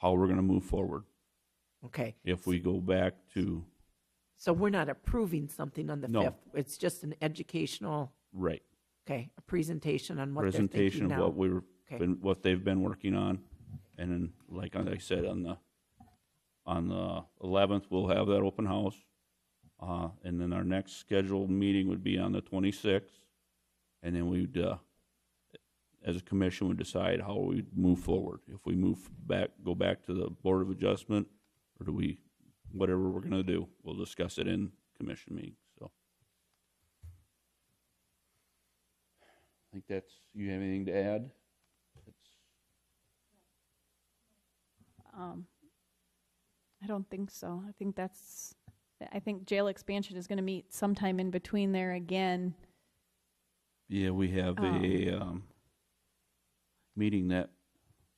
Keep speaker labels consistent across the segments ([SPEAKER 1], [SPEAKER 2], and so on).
[SPEAKER 1] how we're going to move forward.
[SPEAKER 2] Okay,
[SPEAKER 1] If we go back to,
[SPEAKER 2] so we're not approving something on the
[SPEAKER 1] No.
[SPEAKER 2] 5th. It's just an educational,
[SPEAKER 1] right,
[SPEAKER 2] okay, a presentation on what they're thinking
[SPEAKER 1] presentation of what
[SPEAKER 2] now.
[SPEAKER 1] we're,
[SPEAKER 2] Okay.
[SPEAKER 1] been- what they've been working on. And then, like I said, on the, on the eleventh, we'll have that open house. Uh, and then our next scheduled meeting would be on the twenty-sixth. And then we'd, uh, as a commission, would decide how we move forward. If we move back, go back to the Board of Adjustment, or do we, whatever we're gonna do, we'll discuss it in commission meeting, so. I think that's, you have anything to add? That's-
[SPEAKER 3] Um, I don't think so. I think that's, I think jail expansion is going to meet sometime in between there again.
[SPEAKER 1] Yeah, we have a, um, meeting that,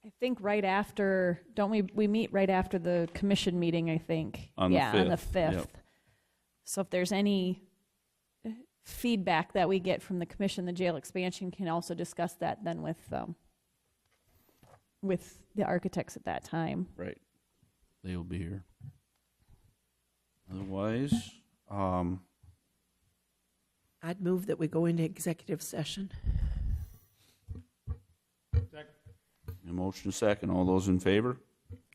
[SPEAKER 3] I think right after, don't we, we meet right after the commission meeting, I think.
[SPEAKER 1] On the
[SPEAKER 3] Yeah, on the
[SPEAKER 1] 5th, yep.
[SPEAKER 3] 5th. So if there's any uh, feedback that we get from the commission, the jail expansion can also discuss that then with, um, with the architects at that time.
[SPEAKER 1] right, they will be here. Otherwise, um,
[SPEAKER 2] I'd move that we go into executive session.
[SPEAKER 1] a motion second, all those in favor?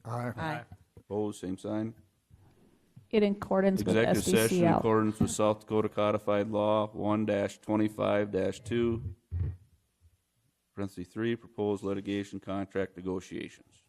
[SPEAKER 4] Aye.
[SPEAKER 2] Aye.
[SPEAKER 1] Opposed, same sign?
[SPEAKER 3] In accordance with
[SPEAKER 1] Executive session in
[SPEAKER 3] SDCL.
[SPEAKER 1] accordance with South Dakota Codified Law one twenty-five two, parentheses three, proposed litigation contract negotiations.